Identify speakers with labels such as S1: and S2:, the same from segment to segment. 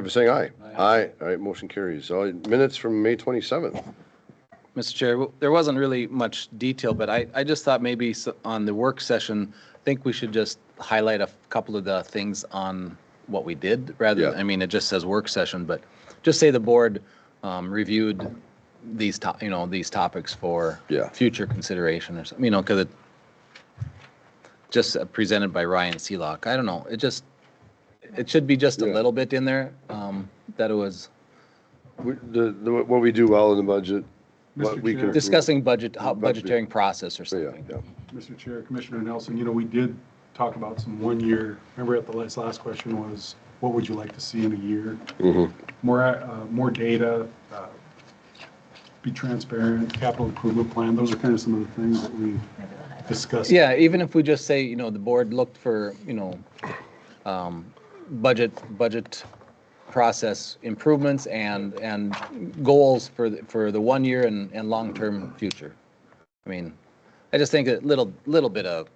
S1: favor saying aye.
S2: Aye.
S1: Aye. All right, motion carries. All right, minutes from May 27th.
S2: Mr. Chair, w- there wasn't really much detail, but I, I just thought maybe s- on the work session, I think we should just highlight a f- couple of the things on what we did, rather,
S1: Yeah.
S2: I mean, it just says work session, but just say the board um, reviewed these, to- you know, these topics for
S1: Yeah.
S2: future consideration or something, you know, because it just uh, presented by Ryan Seelock. I don't know, it just, it should be just a
S1: Yeah.
S2: little bit in there, um, that it was
S1: We- The, the, what we do well in the budget, what
S3: Mr.
S1: we
S3: Chair.
S1: can.
S2: discussing budget, how
S1: Budget.
S2: budgeting process or
S1: Yeah,
S2: something.
S1: yeah.
S3: Mr. Chair, Commissioner Nelson, you know, we did talk about some one-year, remember at the last, last question was, what would you like to see in a year? More, uh, more data, uh, be transparent, capital improvement plan, those are kind of some of the things that we discussed.
S2: Yeah, even if we just say, you know, the board looked for, you know, um, budget, budget process improvements and, and goals for, the- for the one year and, and long-term future. I mean, I just think a little, little bit of,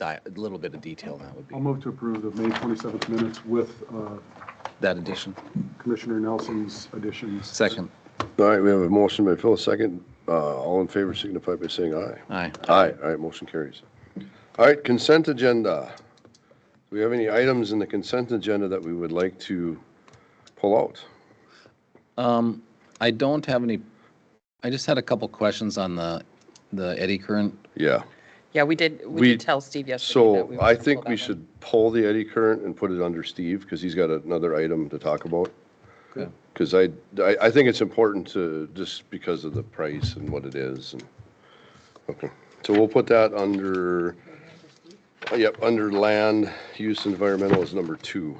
S2: di- a little bit of detail that would be,
S3: I'll move to approve the May 27th minutes with uh,
S2: that addition.
S3: Commissioner Nelson's additions.
S2: Second,
S1: All right, we have a motion by Phil, a second. Uh, all in favor signify by saying aye.
S2: aye.
S1: Aye. All right, motion carries. All right, consent agenda. Do we have any items in the consent agenda that we would like to pull out?
S2: Um, I don't have any, I just had a couple questions on the, the eddy current.
S1: Yeah.
S4: Yeah, we did, we
S1: We-
S4: did tell Steve yesterday. that
S1: So
S4: we were
S1: I
S4: gonna
S1: think
S4: pull
S1: we
S4: that one.
S1: should pull the eddy current and put it under Steve because he's got another item to talk about.
S2: Good.
S1: Because I, I, I think it's important to, just because of the price and what it is and, okay. So we'll put that under, yep, under land use environmental is number two.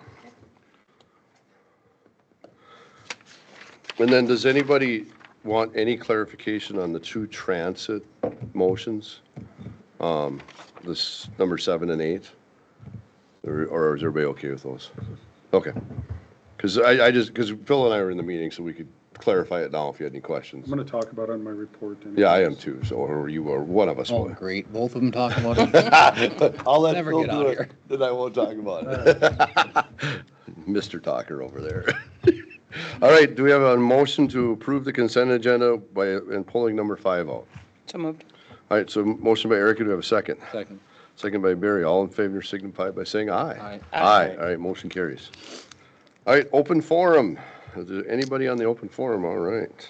S1: And then does anybody want any clarification on the two transit motions? Um, this number seven and eight? Or or is everybody okay with those? Okay. Because I, I just, because Phil and I were in the meeting, so we could clarify it now if you had any
S3: I'm
S1: questions.
S3: going to talk about it on my report. anyways.
S1: Yeah, I am too, so, or you, or one of us
S2: Oh,
S1: will.
S2: great, both of them talking about it.
S1: I'll let
S2: Never
S1: Phil
S2: get
S1: do
S2: out of
S1: it,
S2: here.
S1: Then I won't talk about it. Mr. Talker over there. All right, do we have a motion to approve the consent agenda by, and pulling number five out?
S4: So moved.
S1: All right, so motion by Erica, do we have a second?
S2: Second.
S1: Second by Barry. All in favor signify by saying aye.
S4: Aye.
S1: Aye. All right, motion carries. All right, open forum. Is there anybody on the open forum? All right.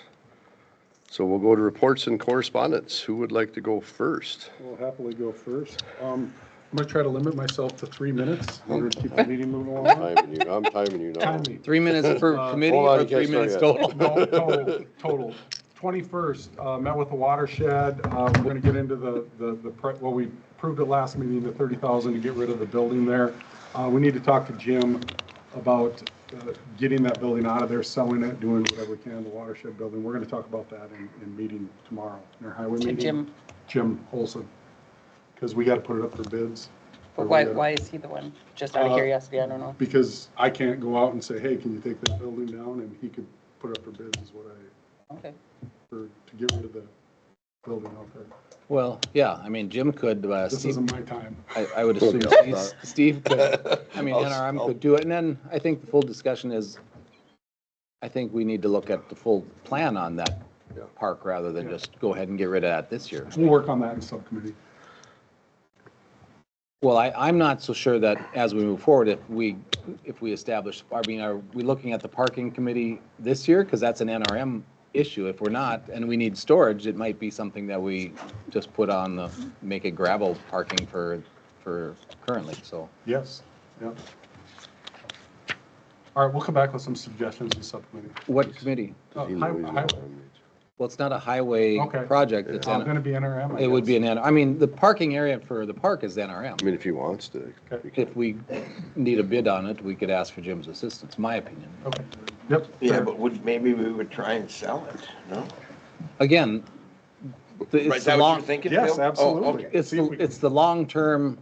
S1: So we'll go to reports and correspondence. Who would like to go first?
S3: I'll happily go first. Um, I'm going to try to limit myself to three minutes in order to keep the meeting moving along.
S1: Timing you. I'm timing you now.
S3: Time me.
S2: Three minutes per
S3: Uh,
S2: committee
S1: hold on,
S2: or
S1: you
S2: three
S1: can't
S2: minutes
S1: start
S2: total?
S3: No, total, total. Twenty-first, uh, met with the watershed, uh, we're gonna get into the, the, the pre- well, we approved at last meeting, the thirty thousand to get rid of the building there. Uh, we need to talk to Jim about, uh, getting that building out of there, selling it, doing whatever we can, the watershed building, we're gonna talk about that in, in meeting tomorrow, in our highway meeting.
S4: Jim.
S3: Jim Olson, because we gotta put it up for bids.
S4: But
S3: Or
S4: why,
S3: we gotta-
S4: why is he the one? Just out of
S3: Uh,
S4: curiosity, I don't know.
S3: Because I can't go out and say, hey, can you take that building down, and he could put it up for bids, is what I
S4: Okay.
S3: for, to get rid of the building out there.
S2: Well, yeah, I mean, Jim could, uh,
S3: This
S2: Steve,
S3: isn't my time.
S2: I, I would assume
S1: Yeah.
S2: Steve- Steve could, I mean, NRM could do it, and then I think the full discussion is, I think we need to look at the full plan on that park rather than just go ahead and get rid of that this year.
S3: We'll work on that in subcommittee.
S2: Well, I, I'm not so sure that as we move forward, if we, if we establish, I mean, are we looking at the parking committee this year? Because that's an NRM issue. If we're not, and we need storage, it might be something that we just put on the, make it gravel parking for, for currently, so.
S3: Yes. Yep. All right, we'll come back with some suggestions in subcommittee.
S2: What committee?
S3: Oh,
S1: He
S3: hi-
S1: knows
S3: hi-
S1: you.
S2: Well, it's not a highway
S3: Okay.
S2: project, it's,
S3: Oh, I'm going
S2: N-
S3: to be NRM. I
S2: it would be
S3: guess.
S2: an, N- I mean, the parking area for the park is
S1: I
S2: NRM.
S1: mean, if he wants to.
S3: Okay.
S2: If we need a bid on it, we could ask for Jim's assistance, my opinion.
S3: Okay, yep.
S5: Yeah,
S3: fair.
S5: but would, maybe we would try and sell it, no?
S2: Again, the-
S5: Right,
S2: it's
S5: is
S2: the
S5: that what you're
S2: long,
S5: thinking, Bill?
S3: Yes,
S5: Oh,
S3: absolutely.
S5: okay.
S2: it's,
S3: See if
S2: the-
S3: we can-
S2: it's the long-term,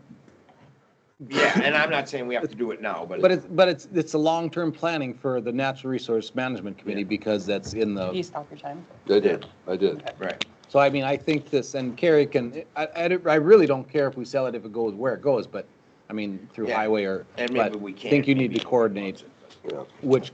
S5: Yeah, and I'm not saying we have to do it now, but.
S2: but it's, but it's, it's the long-term planning for the Natural Resource Management Committee because that's in
S4: He
S2: the,
S4: stopped your time.
S1: I did, I did.
S5: Right.
S2: so I mean, I think this, and Carrie can, I, I, don't- I really don't care if we sell it, if it goes where it goes, but, I mean, through
S5: Yeah.
S2: highway or,
S5: And maybe
S2: but
S5: we
S2: I
S5: can,
S2: think you need
S5: maybe
S2: to coordinate
S1: Yeah.
S2: which